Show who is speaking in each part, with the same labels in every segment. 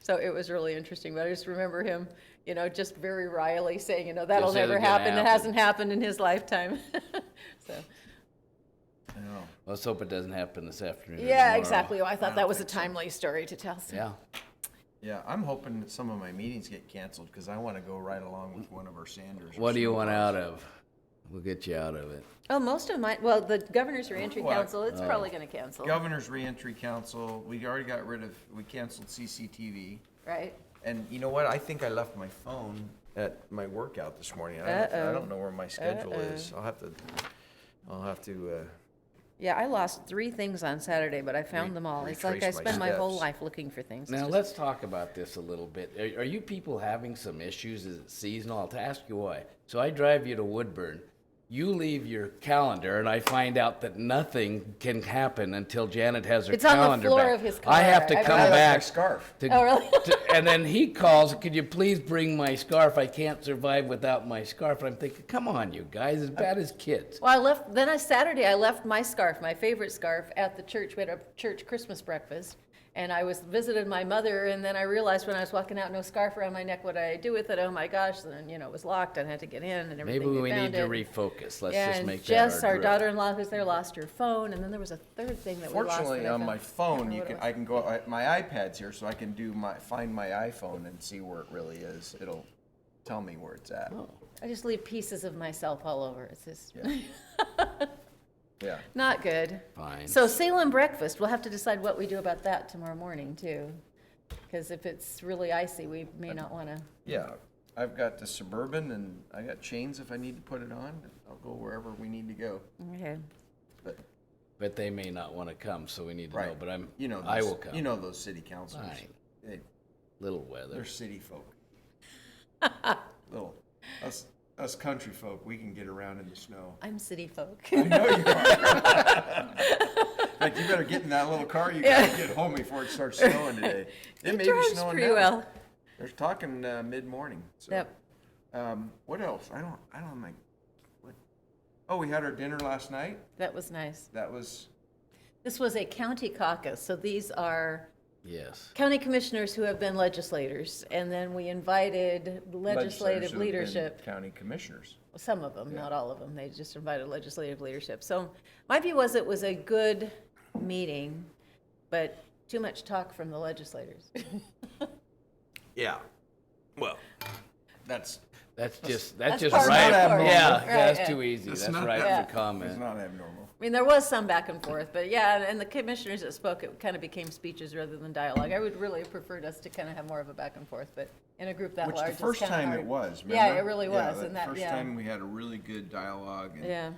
Speaker 1: So it was really interesting, but I just remember him, you know, just very wryly saying, you know, that'll
Speaker 2: This isn't
Speaker 1: never
Speaker 2: gonna
Speaker 1: happen. It
Speaker 2: happen."
Speaker 1: hasn't happened in his lifetime. So,
Speaker 3: I know.
Speaker 2: Let's hope it doesn't happen this afternoon. or
Speaker 1: yeah,
Speaker 2: tomorrow.
Speaker 1: exactly. I thought
Speaker 3: don't
Speaker 1: that was a
Speaker 3: think so.
Speaker 1: timely story to tell. so-
Speaker 2: Yeah.
Speaker 3: Yeah, I'm hoping that some of my meetings get canceled because I want to go right along with one of our Sanders. or
Speaker 2: What do you
Speaker 3: some-
Speaker 2: want out of? We'll get you out of it.
Speaker 1: Oh, most of mine, well, the Governor's Reentry
Speaker 3: Well, uh,
Speaker 1: Council, it's probably going to cancel,
Speaker 3: Governor's Reentry Council, we already got rid of, we canceled CCTV.
Speaker 1: right?
Speaker 3: And you know what? I think I left my phone at my workout this morning. I don't, I
Speaker 1: Uh-oh.
Speaker 3: don't know where my schedule is. I'll have to, I'll have to, uh,
Speaker 1: Yeah, I lost three things on Saturday, but I found
Speaker 3: Re-
Speaker 1: them all. It's like I
Speaker 3: retrace my
Speaker 1: spend my whole
Speaker 3: steps.
Speaker 1: life looking for things. It's
Speaker 2: Now,
Speaker 1: just-
Speaker 2: let's talk about this a little bit. Are, are you people having some issues? Is it seasonal? I'll ask you why. So I drive you to Woodburn. You leave your calendar, and I find out that nothing can happen until Janet has her
Speaker 1: It's on the
Speaker 2: calendar
Speaker 1: floor
Speaker 2: back.
Speaker 1: of his
Speaker 2: I have
Speaker 1: car.
Speaker 2: to
Speaker 1: I
Speaker 2: come
Speaker 1: realized-
Speaker 2: back.
Speaker 3: My scarf.
Speaker 2: to-
Speaker 1: Oh, really?
Speaker 2: to- and then he calls, could you please bring my scarf? I can't survive without my scarf. And I'm thinking, come on, you guys, as bad as kids.
Speaker 1: Well, I left, then on Saturday, I left my scarf, my favorite scarf, at the church. We had a church Christmas breakfast. And I was visited my mother, and then I realized when I was walking out, no scarf around my neck, what did I do with it? Oh my gosh, then, you know, it was locked, I had to get in and everything.
Speaker 2: Maybe we
Speaker 1: found
Speaker 2: need to
Speaker 1: it.
Speaker 2: refocus. Let's
Speaker 1: Yeah,
Speaker 2: just
Speaker 1: and
Speaker 2: make
Speaker 1: Jess,
Speaker 2: that our,
Speaker 1: our
Speaker 2: drill.
Speaker 1: daughter-in-law who's there, lost her phone, and then there was a third thing that we lost.
Speaker 3: Fortunately,
Speaker 1: that I
Speaker 3: on my
Speaker 1: found.
Speaker 3: phone,
Speaker 1: Can't
Speaker 3: you
Speaker 1: remember
Speaker 3: can,
Speaker 1: what
Speaker 3: I can go, I- my iPad's here, so I can do my, find my iPhone and see where it really is. It'll tell me where it's
Speaker 1: it
Speaker 3: at.
Speaker 1: was. I just leave pieces of myself all over, it's just
Speaker 3: Yeah.
Speaker 1: not good.
Speaker 2: Fine.
Speaker 1: So Salem breakfast, we'll have to decide what we do about that tomorrow morning too. Because if it's really icy, we may not want to.
Speaker 3: Yeah, I've got the Suburban and I got chains if I need to put it on. I'll go wherever we need to go.
Speaker 1: Okay.
Speaker 3: But,
Speaker 2: But they may not want to come, so we need to know.
Speaker 3: right.
Speaker 2: But I'm,
Speaker 3: You know,
Speaker 2: I
Speaker 3: those-
Speaker 2: will come.
Speaker 3: You know those city councilors.
Speaker 2: Fine.
Speaker 3: They,
Speaker 2: little
Speaker 3: they're
Speaker 2: weather.
Speaker 3: city folk. Little, us, us country folk, we can get around in the snow.
Speaker 1: I'm city folk.
Speaker 3: I know you are. Like, you better get in that little car. You gotta get home before it starts snowing today. It may be
Speaker 1: drives
Speaker 3: snowing
Speaker 1: pretty
Speaker 3: now.
Speaker 1: well.
Speaker 3: They're talking uh, mid-morning. So.
Speaker 1: Yep.
Speaker 3: Um, what else? I don't. I don't like. What? Oh, we had our dinner last night.
Speaker 1: That was nice.
Speaker 3: That was
Speaker 1: This was a county caucus, so these are
Speaker 2: Yes.
Speaker 1: county commissioners who have been legislators. And then we invited
Speaker 3: legislators
Speaker 1: legislative
Speaker 3: who have been
Speaker 1: leadership.
Speaker 3: County commissioners.
Speaker 1: some of them, not all of them. They just invited legislative leadership. So my view was it was a good meeting, but too much talk from the legislators.
Speaker 3: Yeah. Well, that's
Speaker 2: That's just that's,
Speaker 1: That's
Speaker 2: just
Speaker 1: part of
Speaker 2: right.
Speaker 3: the
Speaker 2: Yeah,
Speaker 3: story.
Speaker 2: yeah,
Speaker 1: Right,
Speaker 2: that's
Speaker 1: yeah.
Speaker 2: too easy.
Speaker 3: It's
Speaker 2: That's
Speaker 3: not
Speaker 2: right
Speaker 1: that-
Speaker 2: for
Speaker 3: it's
Speaker 2: comment.
Speaker 3: not abnormal.
Speaker 1: I mean, there was some back and forth, but yeah, and- and the commissioners that spoke, it kind of became speeches rather than dialogue. I would really have preferred us to kind of have more of a back and forth, but in a group that
Speaker 3: Which
Speaker 1: large,
Speaker 3: the
Speaker 1: it's
Speaker 3: first
Speaker 1: kind of
Speaker 3: time
Speaker 1: hard.
Speaker 3: it was.
Speaker 1: Yeah,
Speaker 3: remember?
Speaker 1: it really was, and that-
Speaker 3: first
Speaker 1: yeah.
Speaker 3: time we had a really good dialogue. And,
Speaker 1: Yeah,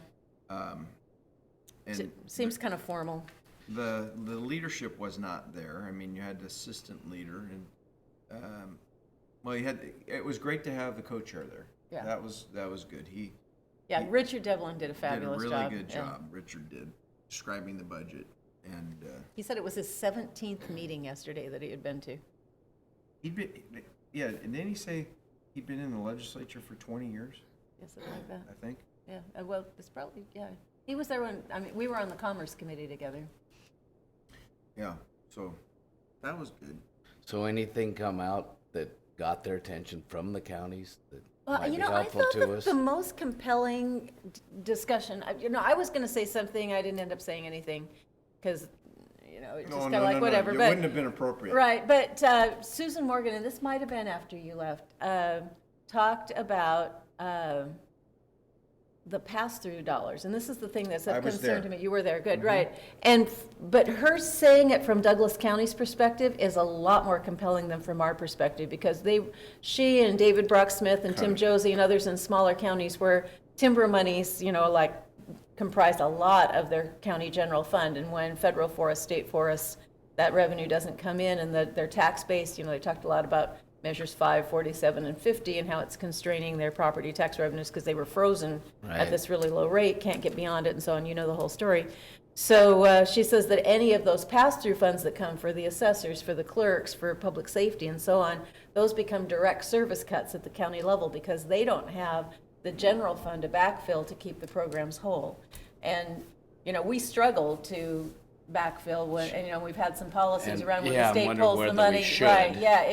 Speaker 3: and
Speaker 1: It seems kind of formal.
Speaker 3: the the leadership was not there. I mean, you had the assistant leader, and um, well, you had. It was great to have the co-chair there.
Speaker 1: Yeah.
Speaker 3: That was that was good. He
Speaker 1: Yeah, Richard Devlin did a
Speaker 3: did a
Speaker 1: fabulous
Speaker 3: really
Speaker 1: job.
Speaker 3: good
Speaker 1: yeah.
Speaker 3: job. Richard did describing the budget, and uh,
Speaker 1: He said it was his 17th meeting yesterday that he had been to.
Speaker 3: he'd been yeah. And then he say he'd been in the legislature for 20 years,
Speaker 1: Yes, something like that.
Speaker 3: I think.
Speaker 1: Yeah, uh, well, it's probably, yeah. He was there when, I mean, we were on the Commerce Committee together.
Speaker 3: Yeah. So that was good.
Speaker 2: So anything come out that got their attention from the counties that
Speaker 1: Well,
Speaker 2: might
Speaker 1: you
Speaker 2: be
Speaker 1: know, I
Speaker 2: helpful
Speaker 1: thought
Speaker 2: to
Speaker 1: that
Speaker 2: us?
Speaker 1: the most compelling d- discussion, I- you know, I was going to say something, I didn't end up saying anything, because, you know, it's just kind of like whatever,
Speaker 3: It
Speaker 1: but.
Speaker 3: wouldn't have been appropriate.
Speaker 1: Right, but uh, Susan Morgan, and this might have been after you left, um, talked about um, the pass-through dollars, and this is the thing that's
Speaker 3: I
Speaker 1: of
Speaker 3: was
Speaker 1: concern
Speaker 3: there.
Speaker 1: to me. You were there, good, right. And, f- but her saying it from Douglas County's perspective is a lot more compelling than from our perspective, because they, she and David Brocksmith and Tim Josie and others in smaller counties where timber monies, you know, like comprised a lot of their county general fund, and when federal forest, state forests, that revenue doesn't come in, and that their tax base, you know, they talked a lot about measures five, forty-seven, and fifty, and how it's constraining their property tax revenues, because they were frozen at
Speaker 2: Right.
Speaker 1: this really low rate, can't get beyond it, and so on, you know the whole story. So, uh, she says that any of those pass-through funds that come for the assessors, for the clerks, for public safety, and so on, those become direct service cuts at the county level, because they don't have the general fund to backfill to keep the programs whole. And, you know, we struggle to backfill when, and, you know, we've had some policies
Speaker 2: And,
Speaker 1: around when
Speaker 2: yeah,
Speaker 1: the
Speaker 2: I'm
Speaker 1: state
Speaker 2: wondering
Speaker 1: pulls
Speaker 2: whether
Speaker 1: the
Speaker 2: we
Speaker 1: money.
Speaker 2: should.
Speaker 1: Right, yeah,